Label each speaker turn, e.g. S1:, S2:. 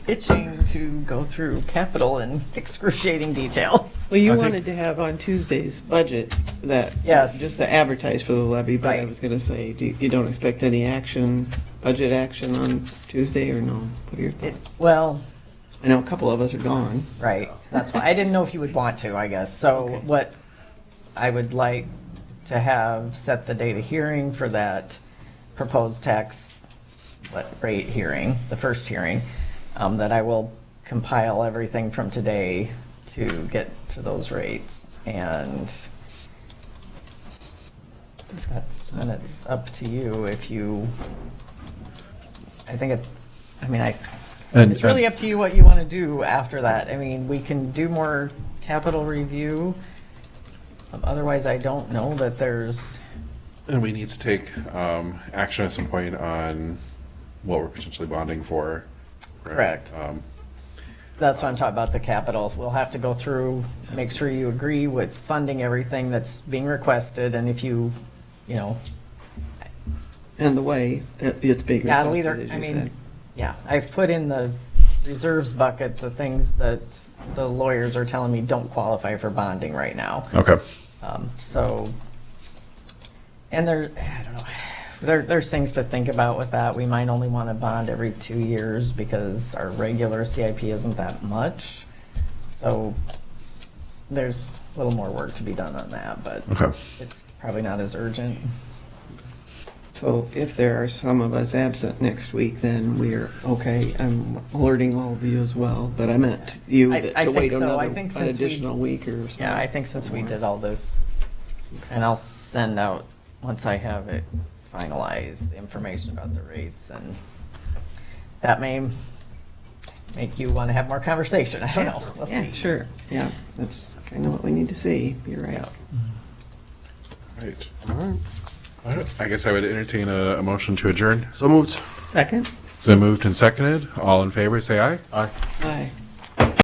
S1: itching to go through capital in excruciating detail.
S2: I
S3: Well, you
S2: think-
S3: wanted to have on Tuesday's budget that.
S1: Yes.
S3: Just to advertise for the levy, but I
S1: Right.
S3: was going to say, do you you don't expect any action, budget action on Tuesday or no? What are your
S1: It,
S3: thoughts?
S1: well,
S3: I know a couple of us are gone.
S1: right, that's why, I didn't know if you would want to, I guess.
S3: Okay.
S1: So what I would like to have set the date of hearing for that proposed tax what, rate hearing, the first hearing, um, that I will compile everything from today to get to those rates. And that's, then it's up to you if you, I think it, I mean, I,
S2: And-
S1: it's really
S2: and-
S1: up to you what you want to do after that. I mean, we can do more capital review. Um, Otherwise, I don't know that there's,
S4: And we need to take um, action at some point on what we're potentially bonding for. right?
S1: Correct.
S4: Um,
S1: that's what I'm talking about, the capital. We'll have to go through, make sure you agree with funding everything that's being requested, and if you, you know,
S3: And the way it- it's being
S1: Yeah, I'll either,
S3: requested, as
S1: I
S3: you
S1: mean,
S3: said.
S1: yeah, I've put in the reserves bucket the things that the lawyers are telling me don't qualify for bonding right now.
S4: Okay.
S1: Um, So, and there, I don't know, there, there's things to think about with that. We might only want to bond every two years because our regular CIP isn't that much. So there's a little more work to be done on that, but
S4: Okay.
S1: it's probably not as urgent.
S3: So if there are some of us absent next week, then we're, okay, I'm alerting all of you as well, but I meant you
S1: I-
S3: that-
S1: I
S3: to
S1: think
S3: wait
S1: so. I
S3: another, an
S1: think since we-
S3: additional week or something.
S1: Yeah, I think since we did all this, and I'll send out, once I have it finalized, the information about the rates, and that may make you want to have more conversation, I don't know. We'll
S3: Yeah,
S1: see.
S3: sure, yeah, that's kind of what we need to see, you're right.
S4: Right. All right. All right. I guess I would entertain a, a motion to adjourn.
S2: So moved.
S3: Second?
S4: So moved and seconded. All in favor, say aye.
S2: Aye.
S3: Aye.